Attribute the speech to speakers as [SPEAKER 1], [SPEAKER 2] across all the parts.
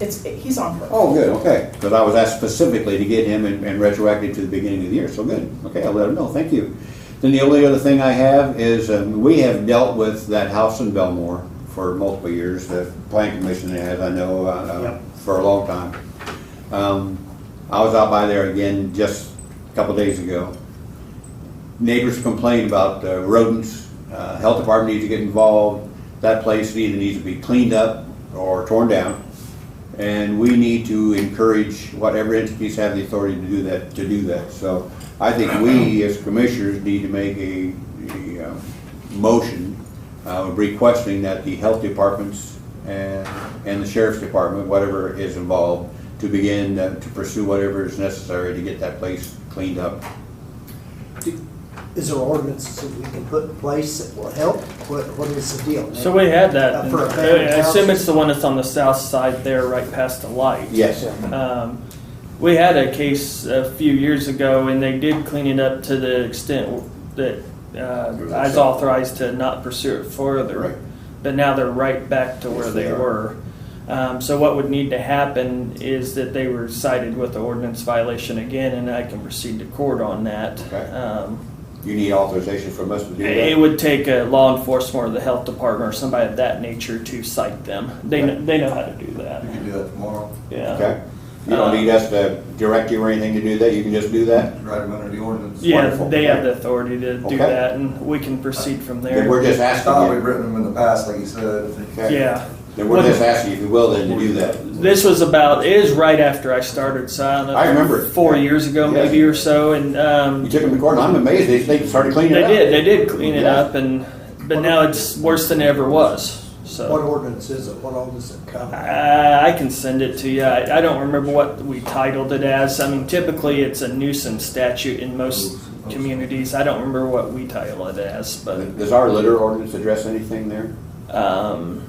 [SPEAKER 1] It's, he's on her.
[SPEAKER 2] Oh, good, okay, because I was asked specifically to get him and and retroactive to the beginning of the year, so good, okay, I'll let him know, thank you. Then the only other thing I have is, um, we have dealt with that house in Belmore for multiple years, the planning commission has, I know, uh, uh,
[SPEAKER 3] Yep.
[SPEAKER 2] for a long time. Um, I was out by there again just a couple days ago. Neighbors complained about uh, rodents, Uh, health department needs to get involved, that place either needs to be cleaned up or torn down. And we need to encourage whatever entities have the authority to do that, to do that. So I think we as commissioners need to make a, a, um, motion uh, requesting that the health departments and, and the sheriff's department, whatever is involved, to begin uh, to pursue whatever is necessary to get that place cleaned up.
[SPEAKER 3] Is there ordinances that we can put in place that will help? What, what is the deal?
[SPEAKER 4] So we had that.
[SPEAKER 3] Uh, for a family
[SPEAKER 4] I assume
[SPEAKER 3] house?
[SPEAKER 4] it's the one that's on the south side there, right past the light.
[SPEAKER 2] Yes.
[SPEAKER 4] Um, we had a case a few years ago, and they did clean it up to the extent that uh, I was authorized to not pursue it further.
[SPEAKER 2] Right.
[SPEAKER 4] But now they're right back to where
[SPEAKER 2] Yes,
[SPEAKER 4] they,
[SPEAKER 2] they are.
[SPEAKER 4] were. Um, so what would need to happen is that they were cited with the ordinance violation again, and I can proceed to court on that.
[SPEAKER 2] Okay.
[SPEAKER 4] Um,
[SPEAKER 2] You need authorization from us to do that?
[SPEAKER 4] it would take a law enforcement or the health department or somebody of that nature to cite them. They, kn- they know how to do
[SPEAKER 5] You
[SPEAKER 4] that.
[SPEAKER 5] can do that tomorrow,
[SPEAKER 4] Yeah.
[SPEAKER 2] Okay. You don't need us to direct you or anything to do that, you can just do that?
[SPEAKER 5] write them under the ordinance.
[SPEAKER 4] Yeah,
[SPEAKER 2] Wonderful.
[SPEAKER 4] they have the authority to
[SPEAKER 2] Okay.
[SPEAKER 4] do that and we can proceed from
[SPEAKER 2] Then
[SPEAKER 4] there.
[SPEAKER 2] we're just
[SPEAKER 5] I thought
[SPEAKER 2] asking
[SPEAKER 5] we'd
[SPEAKER 2] you,
[SPEAKER 5] written them in the past, like you said.
[SPEAKER 2] Okay.
[SPEAKER 4] Yeah.
[SPEAKER 2] then we're just asking you if you will then to do that.
[SPEAKER 4] This was about, it is right after I started, so I don't know.
[SPEAKER 2] I remember it.
[SPEAKER 4] Four years ago
[SPEAKER 2] Yeah.
[SPEAKER 4] maybe or so and, um,
[SPEAKER 2] You took them to court, and I'm amazed they, they started
[SPEAKER 4] they
[SPEAKER 2] cleaning it up.
[SPEAKER 4] did, they did clean it
[SPEAKER 2] Yeah.
[SPEAKER 4] up and, but now it's worse than it ever was, so.
[SPEAKER 3] What ordinance is it? What ordinance does it cover?
[SPEAKER 4] Uh, I can send it to you. I, I don't remember what we titled it as. I mean, typically it's a nuisance statute in most communities. I don't remember what we title it as, but
[SPEAKER 2] Does our litter ordinance address anything there?
[SPEAKER 4] um,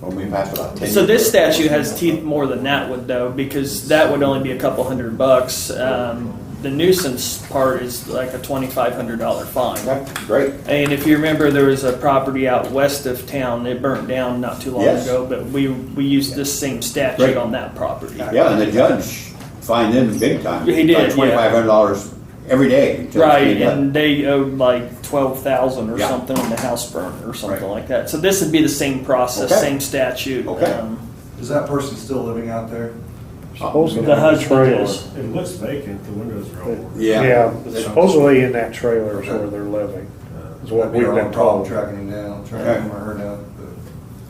[SPEAKER 2] Well, we passed about ten.
[SPEAKER 4] so this
[SPEAKER 2] years ago.
[SPEAKER 4] statute has teeth more than that would though, because that would only be a couple hundred bucks. Um, the nuisance part is like a twenty-five hundred dollar fine.
[SPEAKER 2] Okay, Great,
[SPEAKER 4] And if you remember, there was a property out west of town. It burnt down not too long
[SPEAKER 2] Yes.
[SPEAKER 4] ago, but we we used this same statute
[SPEAKER 2] Right.
[SPEAKER 4] on that property.
[SPEAKER 2] yeah, and the judge fined them big time.
[SPEAKER 4] He did, yeah.
[SPEAKER 2] Twenty-five hundred dollars every day. until it's
[SPEAKER 4] Right,
[SPEAKER 2] cleaned up.
[SPEAKER 4] and they owed like twelve thousand or
[SPEAKER 2] Yeah.
[SPEAKER 4] something when the house burned or something
[SPEAKER 2] Right.
[SPEAKER 4] like that. So this would be the same process,
[SPEAKER 2] Okay.
[SPEAKER 4] same statute.
[SPEAKER 2] Okay.
[SPEAKER 4] um,
[SPEAKER 5] Is that person still living out there?
[SPEAKER 6] Supposedly
[SPEAKER 4] The
[SPEAKER 6] in
[SPEAKER 4] husband
[SPEAKER 6] trailer.
[SPEAKER 4] is,
[SPEAKER 7] It looks vacant, the windows are all.
[SPEAKER 2] Yeah.
[SPEAKER 6] Yeah, supposedly in that trailer is where they're living, is
[SPEAKER 5] That'd
[SPEAKER 6] what
[SPEAKER 5] be
[SPEAKER 6] we've
[SPEAKER 5] our
[SPEAKER 6] been
[SPEAKER 5] own problem
[SPEAKER 6] told.
[SPEAKER 5] Tracking him down,
[SPEAKER 2] Okay.
[SPEAKER 5] tracking him or her down,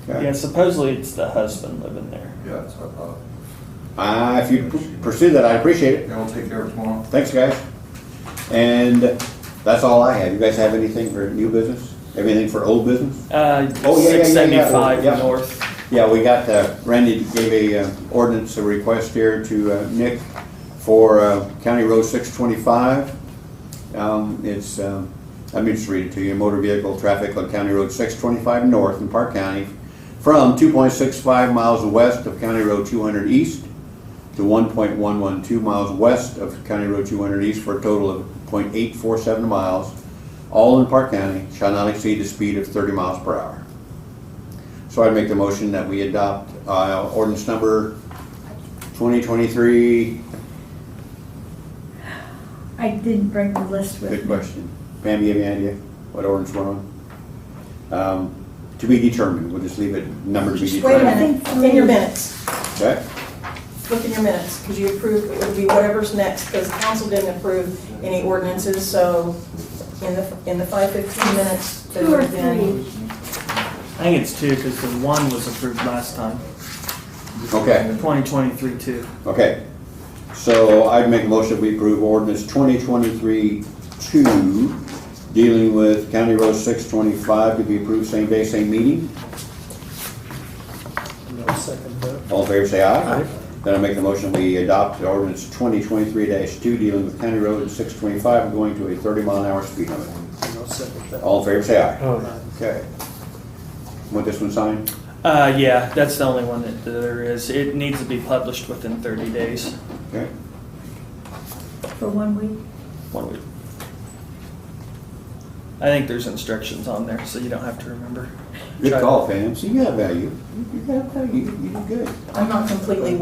[SPEAKER 2] Okay.
[SPEAKER 4] yeah, supposedly it's the husband living there.
[SPEAKER 5] but, yeah, that's what I thought.
[SPEAKER 2] Uh, if you p- pursue that, I appreciate it.
[SPEAKER 5] Yeah, we'll take care of it tomorrow.
[SPEAKER 2] Thanks, guys. And that's all I have. You guys have anything for new business? Anything for old business?
[SPEAKER 4] Uh,
[SPEAKER 2] Oh, yeah, yeah, yeah, yeah,
[SPEAKER 4] six seventy-five
[SPEAKER 2] yeah.
[SPEAKER 4] north.
[SPEAKER 2] Yeah, we got, uh, Randy gave a uh, ordinance, a request here to uh, Nick for uh, County Road 625. Um, It's, um, let me just read it to you. Motor vehicle traffic on County Road 625 north in Park County from 2.65 miles west of County Road 200 east to 1.112 miles west of County Road 200 east for a total of .847 miles, all in Park County, shall not exceed the speed of 30 miles per hour. So I'd make the motion that we adopt uh, ordinance number 2023,
[SPEAKER 8] I didn't bring the list with me.
[SPEAKER 2] good question. Pam, you have any idea what ordinance we're on? Um, To be determined, we'll just leave it, number to be
[SPEAKER 1] Just wait a
[SPEAKER 2] determined.
[SPEAKER 1] minute, in your minutes,
[SPEAKER 2] Okay?
[SPEAKER 1] look in your minutes, because you approved, it would be whatever's next, because council didn't approve any ordinances, so in the, in the five fifteen minutes. that
[SPEAKER 8] Two or
[SPEAKER 1] have been-
[SPEAKER 8] three.
[SPEAKER 4] I think it's two, because the one was approved last time,
[SPEAKER 2] Okay.
[SPEAKER 4] twenty twenty-three two.
[SPEAKER 2] Okay, so I'd make a motion we approve ordinance twenty twenty-three two, dealing with County Road six twenty-five to be approved same day, same meeting.
[SPEAKER 3] No second vote.
[SPEAKER 2] All in favor, say aye. Then I make the motion we adopt ordinance twenty twenty-three two, dealing with County Road six twenty-five, going to a thirty mile an hour speed limit.
[SPEAKER 3] No second vote.
[SPEAKER 2] All in favor, say aye.
[SPEAKER 6] Oh,
[SPEAKER 2] Okay. Want this one signed?
[SPEAKER 4] Uh, yeah, that's the only one that there is. It needs to be published within thirty days.
[SPEAKER 2] Okay.
[SPEAKER 8] For one week.
[SPEAKER 4] One week. I think there's instructions on there, so you don't have to remember.
[SPEAKER 2] Good
[SPEAKER 4] Try-
[SPEAKER 2] call, Pam. See, you got value. You got value. You did good.
[SPEAKER 1] I'm not completely